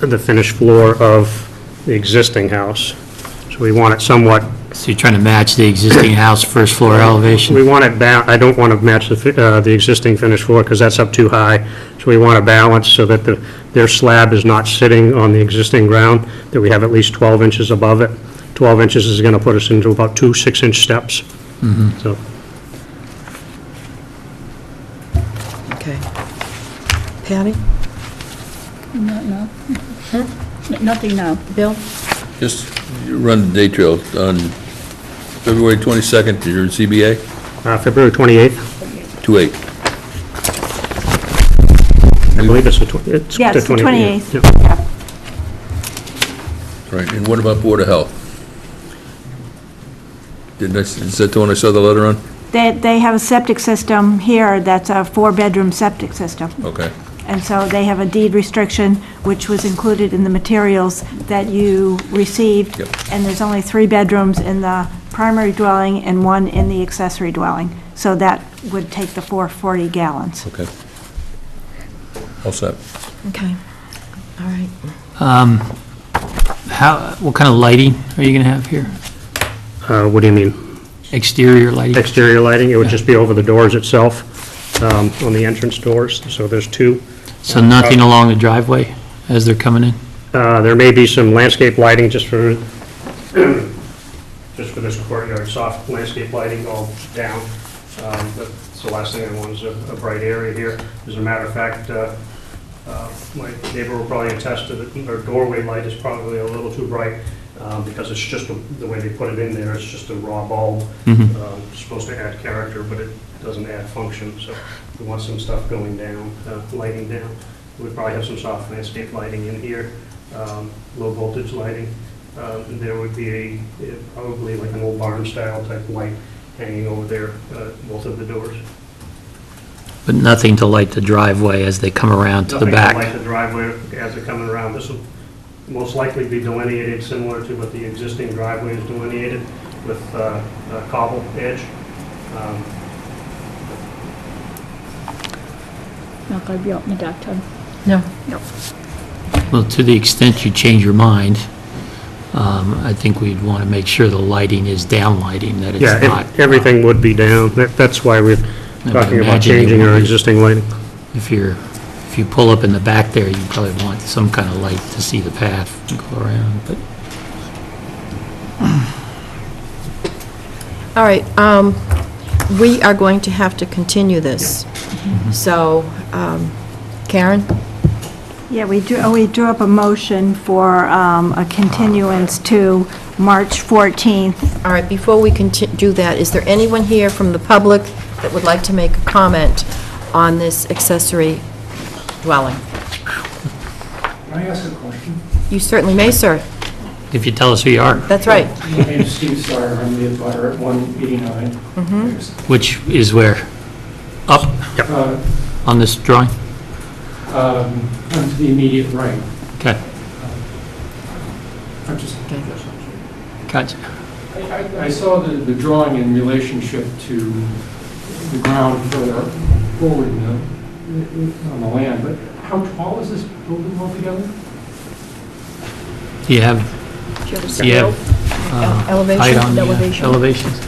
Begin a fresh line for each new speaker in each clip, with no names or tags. the finished floor of the existing house. So we want it somewhat,
So you're trying to match the existing house first floor elevation?
we want it bound, I don't want to match the, fi- uh, the existing finished floor because that's up too high. So we want to balance so that the, their slab is not sitting on the existing ground, that we have at least 12 inches above it. 12 inches is going to put us into about two six-inch steps. So,
Okay. Patty?
No, no. Nothing now.
Bill?
Just run the day trail on February 22nd, to your CBA,
uh, February 28th,
2/8.
I believe it's the tw- it's
Yeah, it's the
28th.
28th.
Yeah.
Right, and what about Board of Health? Didn't I, is that the one I saw the letter on?
They, they have a septic system here that's a four-bedroom septic system.
Okay.
And so they have a deed restriction, which was included in the materials that you received.
Yep.
And there's only three bedrooms in the primary dwelling and one in the accessory dwelling. So that would take the 440 gallons.
Okay. All set.
Okay. All right.
Um, How, what kind of lighting are you going to have here?
Uh, What do you mean?
Exterior lighting?
exterior lighting, it would just be over the doors itself, um, on the entrance doors, so there's two.
So nothing along the driveway as they're coming in?
Uh, There may be some landscape lighting just for, just for this courtyard, soft landscape lighting all down, Um, but it's the last thing I want is a a bright area here. As a matter of fact, uh, uh, my neighbor will probably attest to that our doorway light is probably a little too bright, um, because it's just the- the way they put it in there, it's just a raw bulb.
Mhm.
Um, it's Supposed to add character, but it doesn't add function, so we want some stuff going down, uh, lighting down. We probably have some soft landscape lighting in here, um, low voltage lighting. Um, and There would be a, eh, probably like an old barn style type light hanging over there, uh, both of the doors.
But nothing to light the driveway as they come around to the
Nothing to light
back?
the driveway as they're coming around. This will most likely be delineated similar to what the existing driveway is delineated with uh, a cobble edge. Um,
not going to be out in the daytime.
No.
Well, to the extent you change your mind, um, I think we'd want to make sure the lighting is down lighting, that it's
Yeah,
not...
ev- everything would be down. That- That's why we're
I would
talking about
imagine it
changing
would
our
be.
existing lighting.
If you're, if you pull up in the back there, you probably want some kind of light to see the path to go around, but...
All right, um, we are going to have to continue this.
Mm-hmm.
So, um, Karen?
Yeah, we drew, we drew up a motion for um, a continuance to March 14th.
All right, before we conti- do that, is there anyone here from the public that would like to make a comment on this accessory dwelling?
Can I ask a question?
You certainly may, sir.
If you tell us who you are,
That's right.
My name is Steve Sawyer, I'm the abutter at 189.
Mm-hmm.
which is where, up
Uh,
on this drawing?
um, I'm to the immediate right.
Okay,
I'm just,
gotcha.
I- I I saw the the drawing in relationship to the ground further forward in the- on the land, but how tall is this building altogether?
Do you have, do you have uh,
Elevation,
height on the uh,
elevation.
elevations?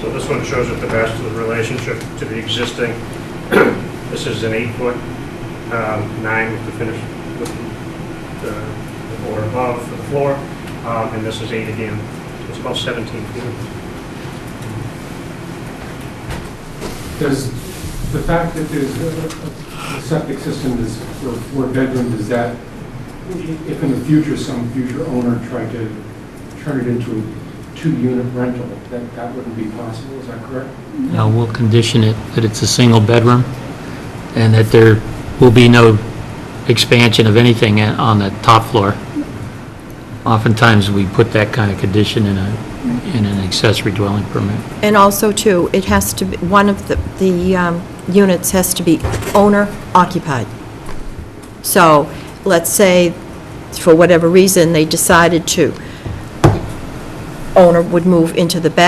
So this one shows it the best of the relationship to the existing. This is an eight-foot, um, nine with the finish, with the the board above for the floor, um, and this is eight again. So It's about 17 feet.
Does the fact that there's a- a septic system is for four bedroom, does that, if in the future some future owner tried to turn it into a two-unit rental, that, that wouldn't be possible, is that correct?
Now, we'll condition it that it's a single bedroom and that there will be no expansion of anything a- on the top floor. Oftentimes, we put that kind of condition in a, in an accessory dwelling permit.
And also, too, it has to, be one of the, the um, units has to be owner occupied. So, let's say, for whatever reason, they decided to, owner would move into the back